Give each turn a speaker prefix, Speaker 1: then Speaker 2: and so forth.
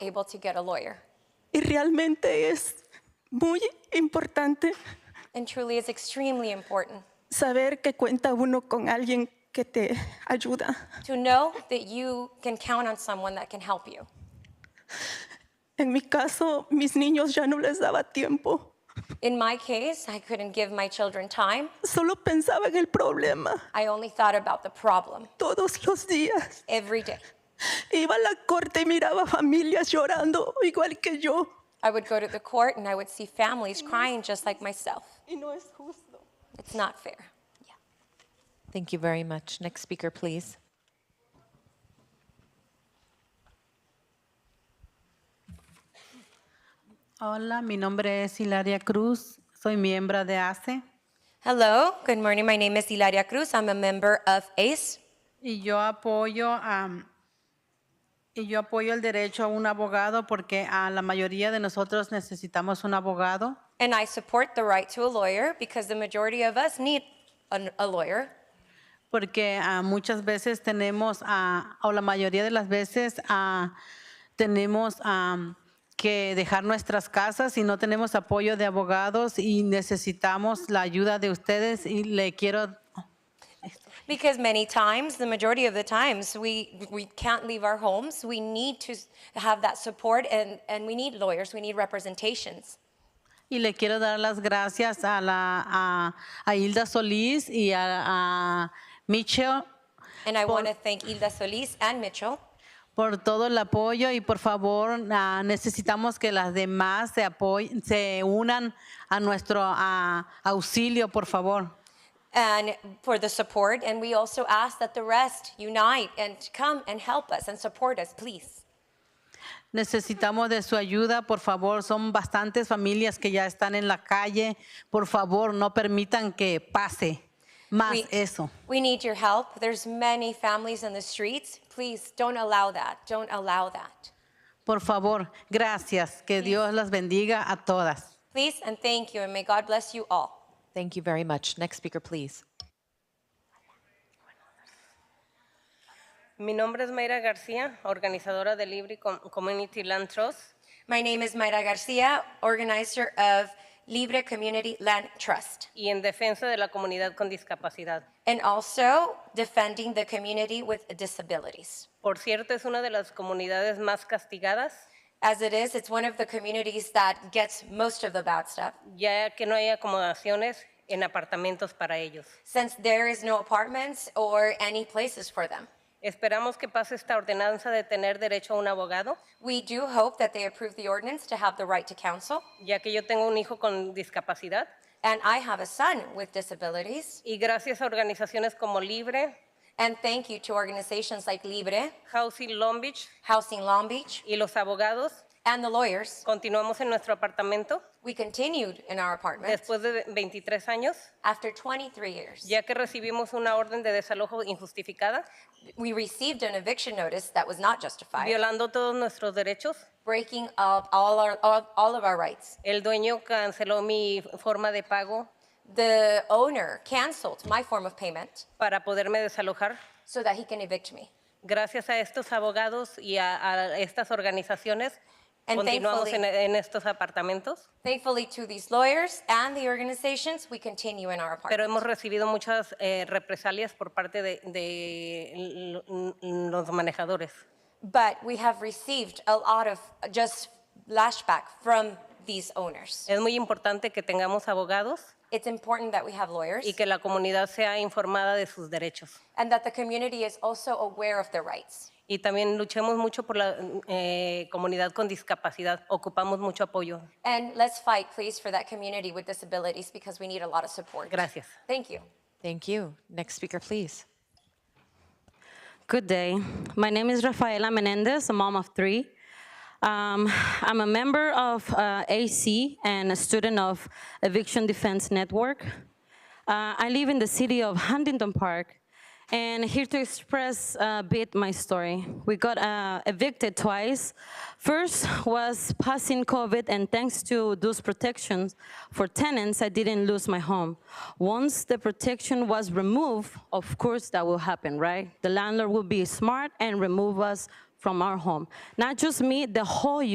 Speaker 1: able to get a lawyer.
Speaker 2: y realmente es muy importante
Speaker 1: And truly is extremely important
Speaker 2: saber que cuenta uno con alguien que te ayuda.
Speaker 1: to know that you can count on someone that can help you.
Speaker 2: En mi caso, mis niños ya no les daba tiempo.
Speaker 1: In my case, I couldn't give my children time.
Speaker 2: Solo pensaba en el problema
Speaker 1: I only thought about the problem
Speaker 2: todos los días.
Speaker 1: every day.
Speaker 2: Iba a la corte y miraba familias llorando igual que yo.
Speaker 1: I would go to the court and I would see families crying just like myself.
Speaker 2: Y no es justo.
Speaker 1: It's not fair. Yeah.
Speaker 3: Thank you very much. Next speaker, please.
Speaker 4: Hola, mi nombre es Hilaria Cruz, soy miembro de E. ACE
Speaker 1: Hello, good morning. My name is Hilaria Cruz. I'm a E. member of ACE.
Speaker 4: y yo apoyo a- y yo apoyo el derecho a un abogado porque a la mayoría de nosotros necesitamos un abogado
Speaker 1: And I support the right to a lawyer because the majority of us need an, a lawyer
Speaker 4: porque ah, muchas veces tenemos ah, o la mayoría de las veces ah, tenemos ah, que dejar nuestras casas y no tenemos apoyo de abogados y necesitamos la ayuda de ustedes y le quiero
Speaker 1: because many times, the majority of the times, we, we can't leave our homes. We need to s- have that support and, and we need lawyers, we need representations.
Speaker 4: Y le quiero dar las gracias a, la, a, a Hilda Solís y a, a Michelle
Speaker 1: And I
Speaker 4: Por-
Speaker 1: want to thank Hilda Solis and Mitchell.
Speaker 4: por todo el apoyo y por favor ah, necesitamos que las demás se, apoyen, se unan a nuestro ah, auxilio, por favor.
Speaker 1: and for the support. And we also ask that the rest unite and come and help us and support us, please.
Speaker 4: Necesitamos de su ayuda, por favor. Son bastantes familias que ya están en la calle. Por favor, no permitan que pase más
Speaker 1: We,
Speaker 4: eso.
Speaker 1: we need your help. There's many families in the streets. Please don't allow that. Don't allow that.
Speaker 4: Por favor, gracias. Que Dios las bendiga a todas.
Speaker 1: Please and thank you. And may God bless you all.
Speaker 3: Thank you very much. Next speaker, please.
Speaker 5: Mi nombre es Mayra García, organizadora de Libre Com- Community Land Trust.
Speaker 1: My name is Mayra Garcia, organizer of Libre Community Land Trust,
Speaker 5: y en defensa de la comunidad con discapacidad.
Speaker 1: and also defending the community with disabilities.
Speaker 5: Por cierto, es una de las comunidades más castigadas,
Speaker 1: As it is, it's one of the communities that gets most of the bad stuff.
Speaker 5: ya que no hay acomodaciones en apartamentos para ellos.
Speaker 1: since there is no apartments or any places for them.
Speaker 5: Esperamos que pase esta ordenanza de tener derecho a un abogado,
Speaker 1: We do hope that they approve the ordinance to have the right to counsel.
Speaker 5: ya que yo tengo un hijo con discapacidad,
Speaker 1: And I have a son with disabilities.
Speaker 5: y gracias a organizaciones como Libre,
Speaker 1: And thank you to organizations like Libre,
Speaker 5: Housing Long Beach
Speaker 1: Housing Long Beach,
Speaker 5: y los abogados,
Speaker 1: and the lawyers.
Speaker 5: continuamos en nuestro apartamento
Speaker 1: We continued in our apartment
Speaker 5: después de 23 años,
Speaker 1: after 23 years.
Speaker 5: ya que recibimos una orden de desalojo injustificada,
Speaker 1: We received an eviction notice that was not justified,
Speaker 5: violando todos nuestros derechos.
Speaker 1: breaking up all, our, all, all of our rights.
Speaker 5: El dueño canceló mi forma de pago
Speaker 1: The owner canceled my form of payment
Speaker 5: para poderme desalojar.
Speaker 1: so that he can evict me.
Speaker 5: Gracias a estos abogados y a, a estas organizaciones,
Speaker 1: And
Speaker 5: continuamos en,
Speaker 1: thankfully-
Speaker 5: en estos apartamentos,
Speaker 1: Thankfully, to these lawyers and the organizations, we continue in our
Speaker 5: pero
Speaker 1: apartment.
Speaker 5: hemos recibido muchas eh, represalias por parte de, de l- l- los manejadores.
Speaker 1: But we have received a lot of just lashback from these owners.
Speaker 5: Es muy importante que tengamos abogados
Speaker 1: It's important that we have lawyers
Speaker 5: y que la comunidad sea informada de sus derechos.
Speaker 1: and that the community is also aware of their rights.
Speaker 5: Y también luchemos mucho por la eh, comunidad con discapacidad. Ocupamos mucho apoyo.
Speaker 1: And let's fight, please, for that community with disabilities because we need a lot of support.
Speaker 5: Gracias.
Speaker 1: Thank you.
Speaker 3: Thank you. Next speaker, please.
Speaker 6: Good day. My name is Rafaela Menendez, a mom of three. Um, I'm a member of uh, AC and a student of Eviction Defense Network. Uh, I live in the city of Huntington Park and here to express uh, a bit my story. We got uh, evicted twice. First was passing COVID, and thanks to those protections for tenants, I didn't lose my home. Once the protection was removed, of course that will happen, right? The landlord will be smart and remove us from our home. Not just me, the whole